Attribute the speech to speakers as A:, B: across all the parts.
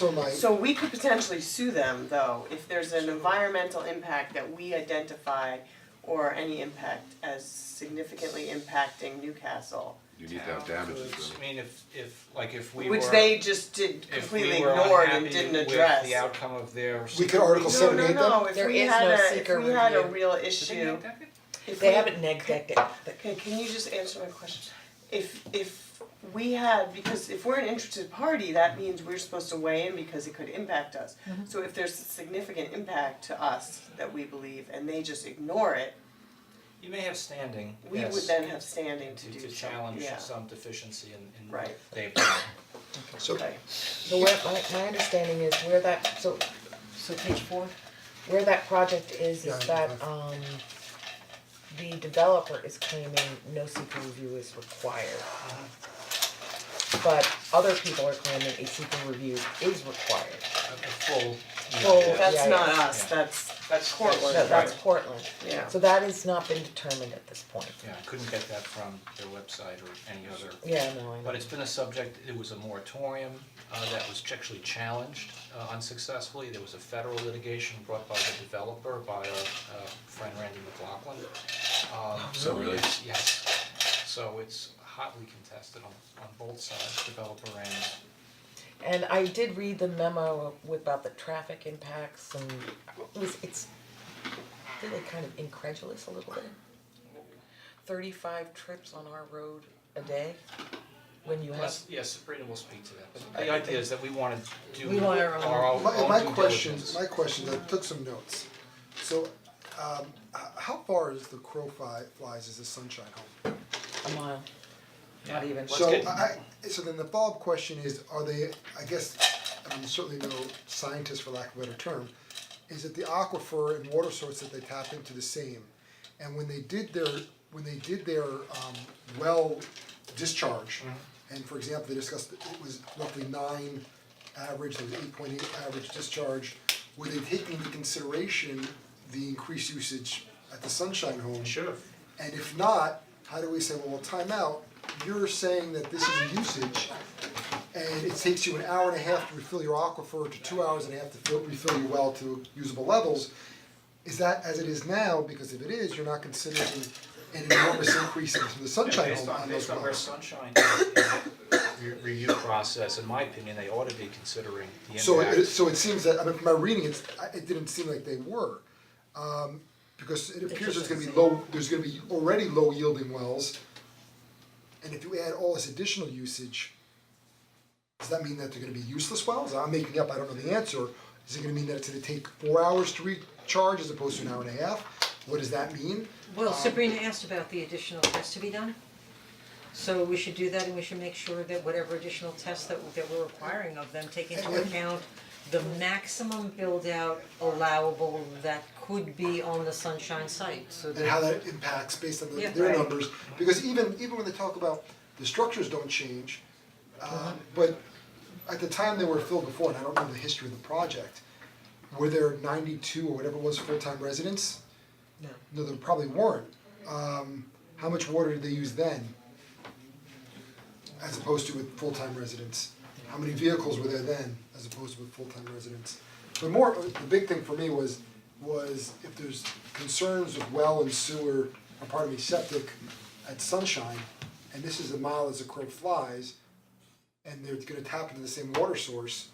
A: So my,
B: So we could potentially sue them though, if there's an environmental impact that we identify or any impact as significantly impacting Newcastle,
C: You need to have damages,
D: Which,
C: really.
D: I mean, if if like if we were.
B: which they just did
D: if we
B: completely
D: were
B: ignored and
D: unhappy
B: didn't
D: with
B: address.
D: the outcome of their.
A: we could Article
B: No,
A: seven
B: no,
A: eight them,
B: no, if
E: There
B: we
E: is
B: had
E: no
B: a, if
E: seeker
B: we had a
E: review.
B: real
D: Did
B: issue.
D: they name that?
B: if
E: They
B: we-
E: haven't neg decked it, but
B: Okay, can you just answer my question? If if we had, because if we're an interested party, that means we're supposed to weigh in because it could impact us. So if there's a significant impact to us that we believe and they just ignore it,
D: You may have standing,
B: we
D: yes,
B: would then have standing to
D: to
B: do
D: to
B: something,
D: challenge
B: yeah.
D: some deficiency in in
B: Right.
D: they
A: so
B: Okay,
E: so where, my, my understanding is where that, so, so page four? Where that project is,
A: Yeah,
E: is that,
A: yeah.
E: um, the developer is claiming no secret review is required. But other people are claiming a secret review is required.
D: a a full.
E: Full-
D: yeah.
E: yeah,
B: that's not
E: yeah.
B: us, that's
D: That's
B: Portland,
E: No,
D: that's
E: that's
D: right.
E: Portland.
B: Yeah.
E: So that has not been determined at this point.
D: Yeah, I couldn't get that from their website or any other.
E: Yeah, no, I know.
D: But it's been a subject, it was a moratorium uh that was actually challenged uh unsuccessfully, there was a federal litigation brought by the developer, by our uh friend Randy McLaughlin. Um so
C: really?
D: it's- yes, so it's hotly contested on on both sides, developer and
E: And I did read the memo with about the traffic impacts and it was, it's really kind of incredulous a little bit. Thirty-five trips on our road a day when you have,
D: plus, yes, Sabrina will speak to that, but the idea is that we wanna do
E: We want our own-
D: our own
A: my my
D: own due
A: question,
D: diligence.
A: my question, I took some notes. So, um, h- how far is the crow fly flies as the sunshine home?
E: a mile,
D: Yeah,
E: not even.
D: let's
A: So
D: get-
A: I, I- so then the follow-up question is, are they, I guess, I'm certainly no scientist for lack of a better term, is it the aquifer and water source that they tap into the same? And when they did their, when they did their um well discharge,
D: Mm-hmm.
A: and for example, they discussed that it was roughly nine average, there was eight point eight average discharge, were they taking into consideration the increased usage at the Sunshine Home?
D: Should have,
A: And if not, how do we say, well, well, time out, you're saying that this is a usage and it takes you an hour and a half to refill your aquifer to two hours and a half to fill, refill your well to usable levels. Is that as it is now, because if it is, you're not considering an enormous increase in the sunshine
D: based
A: on
D: on
A: on those wells.
D: based on where sunshine is in the re- review process, in my opinion, they ought to be considering the impact.
A: So it, so it seems that, I mean, from my reading, it's, I- it didn't seem like they were. Um, because it appears there's gonna be low, there's gonna be already low yielding wells. And if you add all this additional usage, does that mean that they're gonna be useless wells? I'm making up, I don't know the answer. Is it gonna mean that it's gonna take four hours to recharge as opposed to an hour and a half? What does that mean?
F: Well, Sabrina asked about the additional tests to be done. So we should do that and we should make sure that whatever additional tests that that we're requiring of them take into account the maximum build out allowable that could be on the sunshine site, so
A: and
F: that
A: how that impacts based on the-
F: Yeah.
A: their
F: Right.
A: numbers, because even even when they talk about the structures don't change, uh, but at the time they were filled before, and I don't know the history of the project, were there ninety-two or whatever it was full-time residents?
E: No.
A: No, there probably weren't, um, how much water did they use then? As opposed to with full-time residents, how many vehicles were there then, as opposed to with full-time residents? But more, the big thing for me was, was if there's concerns of well and sewer, or pardon me, septic at Sunshine, and this is a mile as a crow flies, and they're gonna tap into the same water source,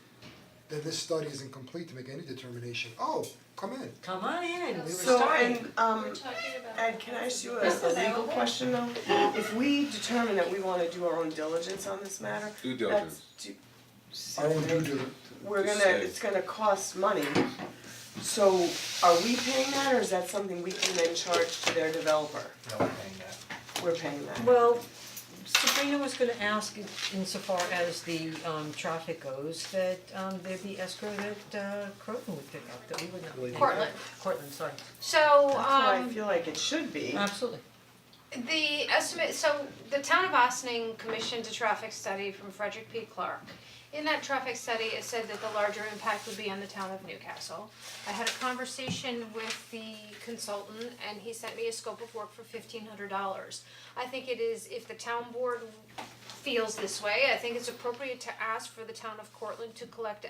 A: then this study isn't complete to make any determination, oh, come in.
F: come on in, we were
B: so
F: starting.
B: and um
G: We're talking about.
B: Ed, can I ask you a
G: This
B: a
G: is
B: legal
G: Ellen.
B: question though? If we determine that we wanna do our own diligence on this matter,
C: Due
B: that's
C: diligence.
B: due-
A: I don't do do it.
B: we're
C: Just
B: gonna,
C: say.
B: it's gonna cost money. So are we paying that or is that something we can then charge to their developer?
D: No, we're paying that.
B: We're paying that.
F: Well, Sabrina was gonna ask in- insofar as the um traffic goes, that um there'd be escrow that uh Croton would pick up, that we would not.
G: Cortland.
F: Cortland, sorry,
G: So,
B: That's why I
G: um,
B: feel like it should be.
F: absolutely.
G: the estimate, so the town of Austining commissioned a traffic study from Frederick P. Clark. In that traffic study, it said that the larger impact would be on the town of Newcastle. I had a conversation with the consultant and he sent me a scope of work for fifteen hundred dollars. I think it is, if the town board feels this way, I think it's appropriate to ask for the town of Cortland to collect